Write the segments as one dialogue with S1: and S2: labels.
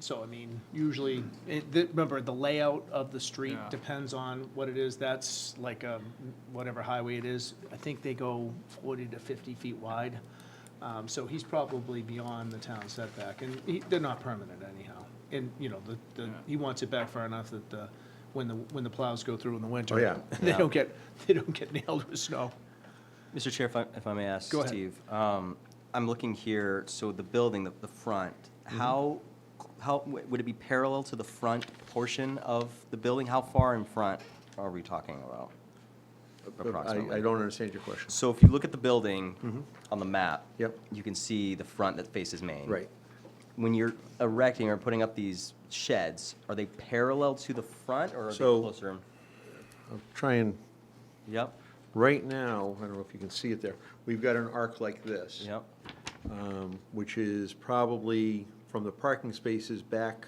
S1: So, I mean, usually, it, the- remember, the layout of the street
S2: Yeah.
S1: depends on what it is. That's like a, whatever highway it is. I think they go forty to fifty feet wide. Um, so he's probably beyond the town setback, and he, they're not permanent anyhow. And, you know, the, the,
S2: Yeah.
S1: he wants it back far enough that, uh, when the, when the plows go through in the winter.
S3: Oh, yeah.
S1: They
S4: Yeah.
S1: don't get, they don't get nailed with snow.
S4: Mr. Chair, if I, if I may ask,
S1: Go ahead.
S4: Steve, um, I'm looking here, so the building, the, the front,
S3: Mm-hmm.
S4: how, how, w- would it be parallel to the front portion of the building? How far in front are we talking about?
S3: I, I
S4: Approximately.
S3: don't understand your question.
S4: So if you look at the building on the map.
S3: Yep.
S4: You can see the front that faces Main.
S3: Right.
S4: When you're erecting or putting up these sheds, are they parallel to the front or are they
S3: So-
S4: closer?
S3: I'm trying,
S4: Yep,
S3: right now, I don't know if you can see it there, we've got an arc like this.
S4: yep,
S3: um, Which is probably from the parking spaces back,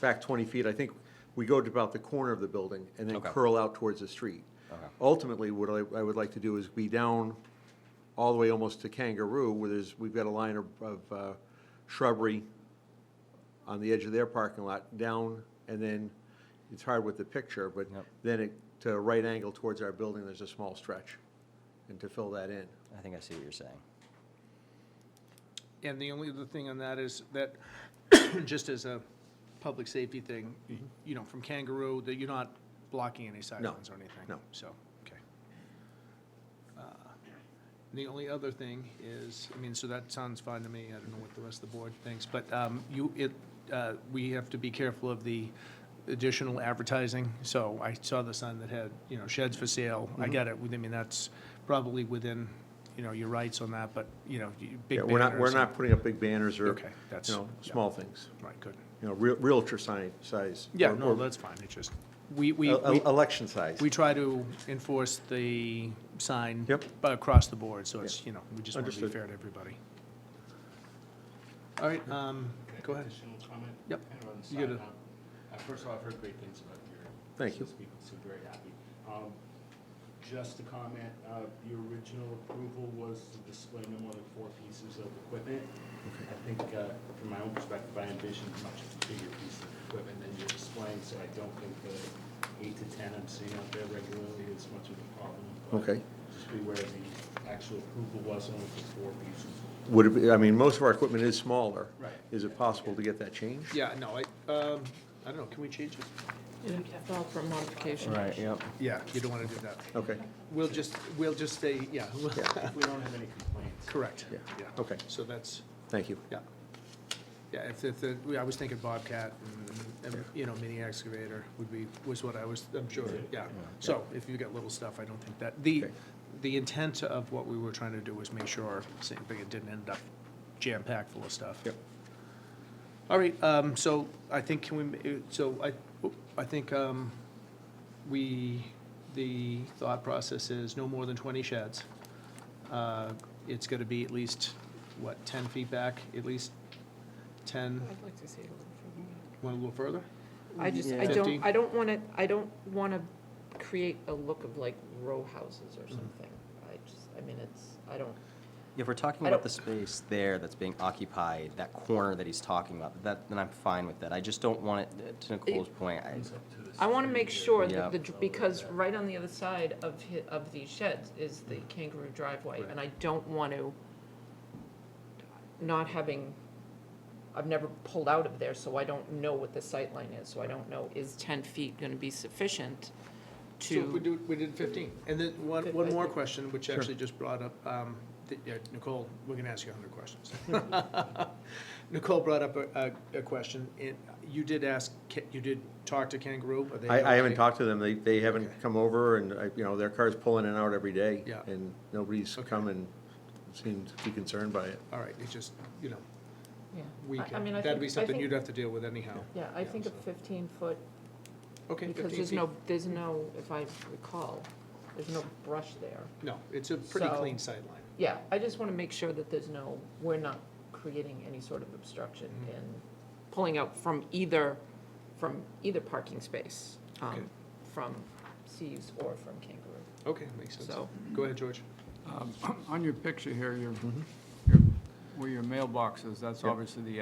S3: back 20 feet. I think we go to about the corner of the building and then
S4: Okay.
S3: curl out towards the street.
S4: Okay.
S3: Ultimately, what I, I would like to do is be down all the way almost to Kangaroo, where there's, we've got a line of, of uh, shrubbery on the edge of their parking lot, down, and then, it's hard with the picture, but
S4: Yep.
S3: then it, to a right angle towards our building, there's a small stretch, and to fill that in.
S4: I think I see what you're saying.
S1: And the only other thing on that is that, just as a public safety thing,
S3: Mm-hmm.
S1: y- you know, from Kangaroo, that you're not blocking any sidelines or anything.
S3: no.
S1: So, okay. Uh, The only other thing is, I mean, so that sounds fine to me, I don't know what the rest of the board thinks, but um, you, it, uh, we have to be careful of the additional advertising. So I saw the sign that had, you know, sheds for sale,
S3: Mm-hmm.
S1: I got it, I mean, that's probably within, you know, your rights on that, but, you know, you- big
S3: Yeah,
S1: banners.
S3: we're not, we're
S1: and-
S3: not putting up big banners or,
S1: Okay, that's-
S3: you know,
S1: yeah.
S3: small things,
S1: Right, good.
S3: you know, real- realtor sign, size.
S1: Yeah,
S3: or-
S1: no,
S3: or
S1: that's fine, it's just, we, we,
S3: el-
S1: we-
S3: el- Election size.
S1: we try to enforce the sign
S3: Yep.
S1: bu- across the board, so it's, you know, we just want to be
S3: Understood.
S1: fair to everybody. All right, um, go ahead.
S5: Additional comment?
S1: Yep.
S5: Kind of on the
S1: You get
S5: side
S1: a-
S5: note. Uh, First of all, I've heard great things about your.
S3: Thank you.
S5: since People seem very happy. Um, Just a comment, uh, the original approval was to display no more than four pieces of equipment. I think, uh, from my own perspective, I envisioned much bigger pieces of equipment than you're displaying, so I don't think the eight to 10 I'm seeing out there regularly is much of a problem. but
S3: Okay.
S5: Just be aware the actual approval was only for four pieces.
S3: Would it be, I mean, most of our equipment is smaller.
S5: Right.
S3: Is it possible to get that changed?
S1: Yeah, no, I, um, I don't know, can we change it?
S6: You have to file for a modification.
S4: Right, yep.
S1: Yeah, you don't want to do that.
S3: Okay,
S1: We'll just, we'll just say, yeah, we'll-
S3: Yeah.
S5: If we don't have any complaints.
S1: correct.
S3: Yeah, okay.
S1: So that's,
S3: thank you.
S1: yeah. Yeah, if, if, the- I was thinking Bobcat and, and, you know, mini excavator would be, was what I was, I'm sure, yeah. So if you got little stuff, I don't think that, the,
S3: Okay.
S1: the intent of what we were trying to do was make sure, same thing, it didn't end up jam-packed full of stuff.
S3: Yep.
S1: All right, um, so I think, can we, ma- so I, I think, um, we, the thought process is no more than twenty sheds. Uh, It's gonna be at least, what, ten feet back, at least ten,
S6: I'd like to see it a little further back.
S1: want a little further?
S6: I just, I
S1: Yeah.
S6: don't,
S1: Fifteen?
S6: I don't want to, I don't want to create a look of like row houses
S4: Mm-hmm.
S6: or something. I just, I mean, it's, I don't,
S4: If we're talking
S6: I
S4: about
S6: don't-
S4: the space there that's being occupied, that corner that he's talking about, that, then I'm fine with that. I just don't want it, to Nicole's point, I,
S5: It's up to the
S6: I want to make sure
S4: Yeah.
S6: that the, dr- because right on the other side of, hi- of these sheds is the kangaroo driveway. And I don't want to, not having, I've never pulled out of there, so I don't know what the sight line is. So I don't know, is 10 feet going to be sufficient to?
S1: So we do, we did fifteen, and then one,
S6: Good,
S1: one
S6: I
S1: more
S6: think.
S1: question, which actually just brought up, um, th- yeah, Nicole, we're gonna ask you a hundred questions. Nicole brought up a, a, a question, and you did ask, Ca- you did talk to Kangaroo, are they?
S3: I, I haven't
S1: okay?
S3: talked to them, they, they haven't
S1: Okay.
S3: come over, and, I- you know, their car's pulling in and out every day.
S1: Yeah.
S3: And nobody's
S1: Okay.
S3: come and seemed to be concerned by it.
S1: All right, it's just, you know,
S6: Yeah.
S1: we
S6: I- I
S1: can,
S6: mean, I
S1: that'd
S6: think-
S1: be
S6: I
S1: something
S6: think-
S1: you'd have to deal with anyhow.
S6: Yeah, I
S1: Yeah,
S6: think a
S1: so-
S6: fifteen foot,
S1: Okay,
S6: because
S1: 15
S6: there's
S1: feet.
S6: no, there's no, if I recall, there's no brush there.
S1: No, it's a pretty
S6: So-
S1: clean sightline.
S6: Yeah, I just want to make sure that there's no, we're not creating any sort of obstruction
S1: Mm-hmm.
S6: and pulling out from either, from either parking space, um,
S1: Okay.
S6: from Seaves or from Kangaroo.
S1: Okay, makes sense.
S6: So-
S1: Go ahead, George.
S2: Um, On your picture here, your, your- where your mailbox is, that's obviously the